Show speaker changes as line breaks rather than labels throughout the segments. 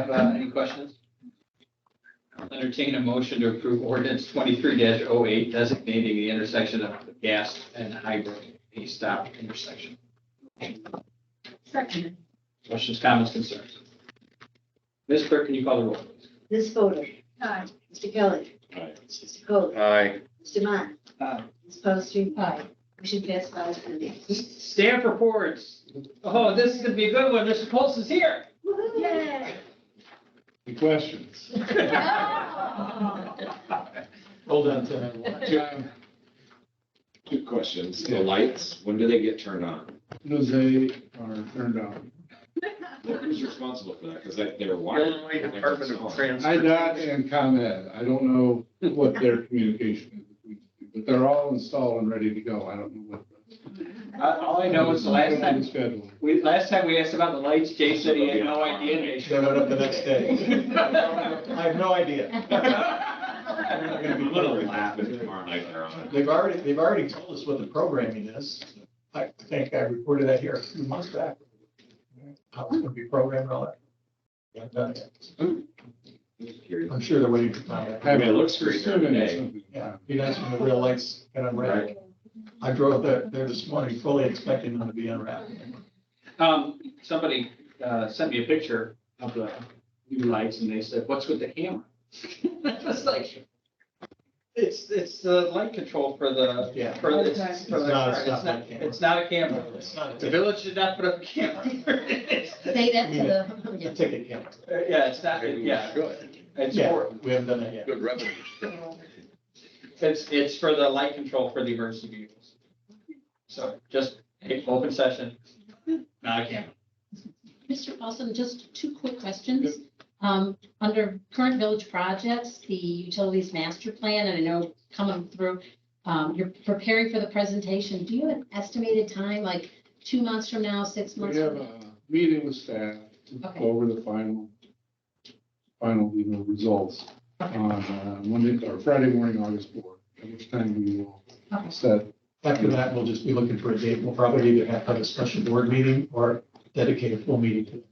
Have uh, any questions? Entertain a motion to approve ordinance twenty-three 8 designating the intersection of the gas and hybrid a stop intersection.
Second.
Questions, comments, concerns? Ms. Clerk, can you call the roll? please?
Ms. Fodor.
Aye.
Mr. Kelly.
Aye.
Mr. Cole.
Aye.
Mr. Matt.
Aye.
Ms. Paulson.
Aye.
Motion passed five zero.
Staff reports. Oh, this is gonna be a good one. Mr. Pulse is here.
Yay.
Any questions?
Hold on to that
Two two questions. The lights, when do they get turned on?
one. They are turned on.
Who's responsible for that? Because they were wired.
Illinois Department of
IDOT
Transportation.
and ComEd, I don't know what their communication is, between the two, but they're all installed and ready to go. I don't know what.
Uh, All I know is the last time,
Schedule.
we, last time we asked about the lights, Jay said he had no idea. and they showed
up the next day. I have no idea.
I'm gonna be a little laughing tomorrow night they're on.
They've already, they've already told us what the programming is. I think I reported that here a few months back. How it's gonna be programmed and all that. Yeah, I've done it.
Curious.
I'm sure they're waiting for comment.
I mean, it looks great
Assuming it's
today.
something-
Yeah, be nice when the real lights get unwrapped. I drove there, there this morning fully expecting them to be unwrapped.
Um, somebody, uh, sent me a picture of the new lights and they said, what's with the hammer? It's like, it's, it's the light control for the,
Yeah.
for the, it's for the
It's not a
car. It's not,
stop light camera.
it's not a camera.
It's not
The
a
village did not put up a camera.
Say that to the,
a ticket camera.
Yeah, it's not, yeah, it's
Yeah,
for,
we haven't done that yet.
Good revenue.
it's, it's for the light control for the emergency vehicles. So just, hey, open session, not a camera.
Mr. Paulson, just two quick questions. Um, Under current village projects, the utilities master plan, and I know coming through, um, you're preparing for the presentation. Do you have an estimated time, like two months from now, six
We
months?
have
from now?
a meeting with staff to go
Okay.
over the final, final, you know, results on uh, Monday or Friday morning, August fourth. At which time we will
Okay.
set
After that, we'll just be looking for a date. We'll probably either have to have a special board meeting or dedicate a full meeting to it.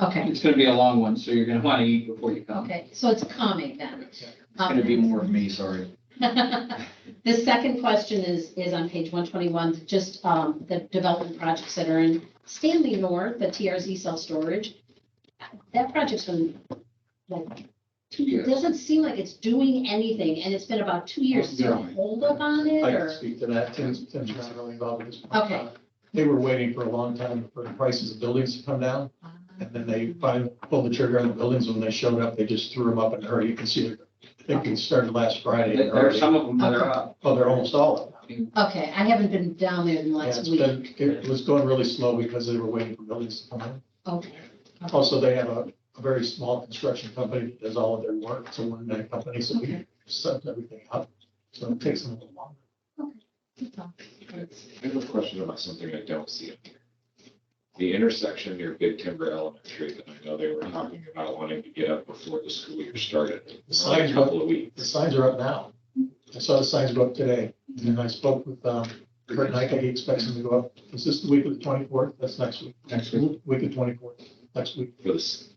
Okay,
It's gonna be a long one, so you're gonna wanna eat before you come.
okay, so it's coming then.
It's gonna be more of me, sorry.
The second question is, is on page one twenty-one, just, um, the development projects that are in Stanley North, the TRZ self-storage. That project's been, like, two years. doesn't seem like it's doing anything, and it's been about two years. Is there a holdup on it,
I can
or?
speak to that. Tim's, Tim's not really involved with this.
Okay.
They were waiting for a long time for the prices of buildings to come down, and then they finally pulled the trigger on the buildings. When they showed up, they just threw them up in a hurry. You can see, I think it started last Friday.
There there are some of them that are up.
Oh, they're almost all up.
Okay, I haven't been down there in the
Yeah,
last
it's
week.
been, it was going really slow because they were waiting for buildings to come in.
Okay,
Also, they have a, a very small construction company that does all of their work. It's a one-man company, so we
Okay.
set everything up. So it takes them a little longer.
That's all.
I have a question about something I don't see up here. The intersection near Big Timber Elementary, that I know they were talking about wanting to get up before the school year started.
The signs
A
up.
Couple of weeks.
The signs are up now. I saw the signs go up today, and then I spoke with, um, Kurt Nike, he expects them to go up. Is this the week of the twenty-fourth? That's next week.
next week.
Week of twenty-fourth, next week.
For this,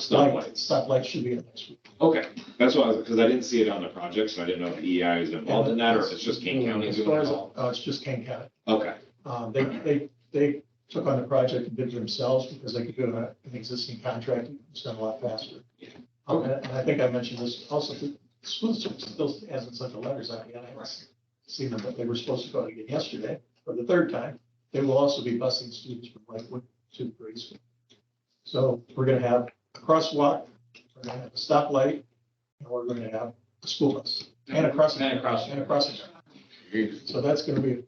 Stop
stop,
lights.
stop lights should be in next week.
okay, that's why, because I didn't see it on the project, so I didn't know if EI is involved in that, or if it's just King County
As
doing
far as,
it
uh,
all.
it's just Kane County.
Okay,
Um, they, they, they took on the project and did it themselves because they could do it on an existing contract. It's done a lot faster.
Yeah.
Um, And and I think I mentioned this also, the school district still hasn't sent the letters out yet. I haven't seen them, but they were supposed to go out again yesterday for the third time. They will also be busing students from Lakewood to grade school. So we're gonna have a crosswalk, we're gonna have a stoplight, and we're gonna have a school bus and a crossing.
And a crossing.
And a crossing guard. So that's gonna be,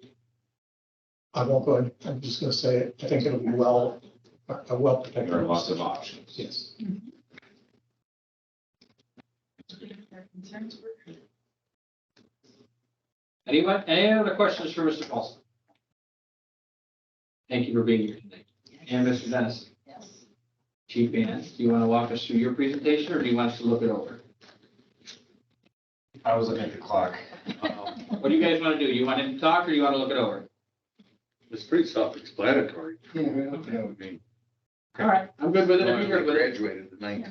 I won't go, in. I'm just gonna say, it. I think it'll be well, a well protected.
there are lots of options.
Yes.
Anyone, any other questions for Mr. Paulson? Thank you for being here today. And Mr. Dennis,
Yes.
Chief Ann, do you want to walk us through your presentation or do you want us to look it over?
I was looking at the clock.
What do you guys want to do? You want him to talk or you want to look it over?
It's pretty self-explanatory.
Yeah,
Yeah, I mean,
All right, I'm good with it.
I
I'm good with it.
graduated in nineteen